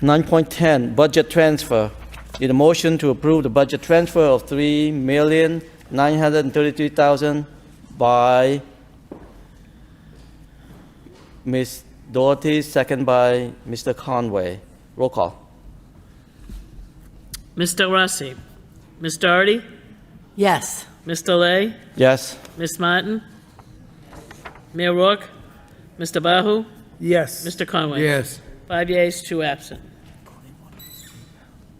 9.10, budget transfer. Need a motion to approve the budget transfer of 3933000 by Ms. Doherty, second by Mr. Conway. Roll call. Ms. Del Rossi, Ms. Doherty, Yes. Ms. Delay, Yes? Ms. Martin, Mayor Rourke, Mr. Bahu, Yes. Mr. Conway. Yes. Five yeas, two absent.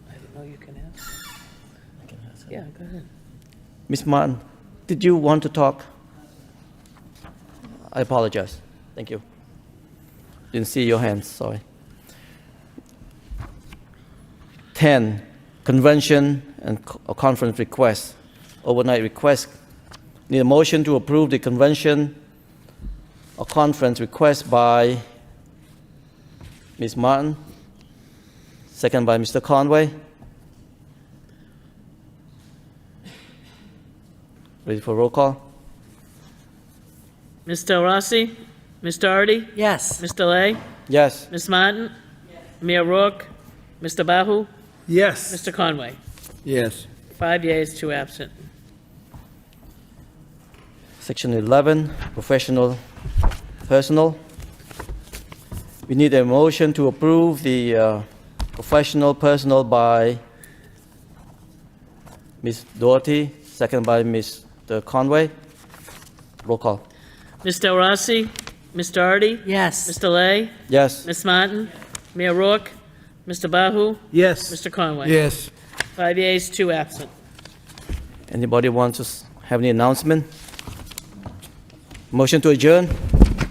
I didn't know you can ask. Yeah, go ahead. Ms. Martin, did you want to talk? I apologize. Thank you. Didn't see your hands, sorry. 10, convention and co- uh, conference requests, overnight requests. Need a motion to approve the convention or conference request by Ms. Martin, second by Mr. Conway. Ready for roll call? Ms. Del Rossi, Ms. Doherty, Yes. Ms. Delay, Yes? Ms. Martin, Mayor Rourke, Mr. Bahu, Yes. Mr. Conway. Yes. Five yeas, two absent. Section 11, professional personnel. We need a motion to approve the uh, professional personnel by Ms. Doherty, second by Mr. Conway. Roll call. Ms. Del Rossi, Ms. Doherty, Ms. Yes. Delay, Yes, Ms. Martin, Mayor Rourke, Mr. Bahu, Yes. Mr. Conway. Yes. Five yeas, two absent. anybody want to s- have any announcement? Motion to adjourn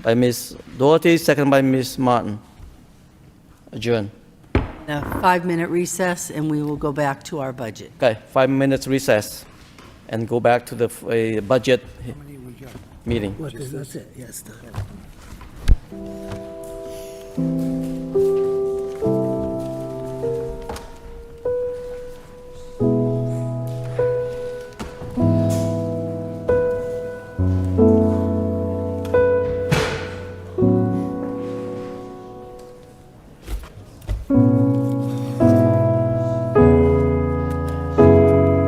by Ms. Doherty, second by Ms. Martin. Adjourn. A five-minute recess, and we will go back to our budget. Okay, five minutes recess and go back to the uh, budget meeting. That's it, yes.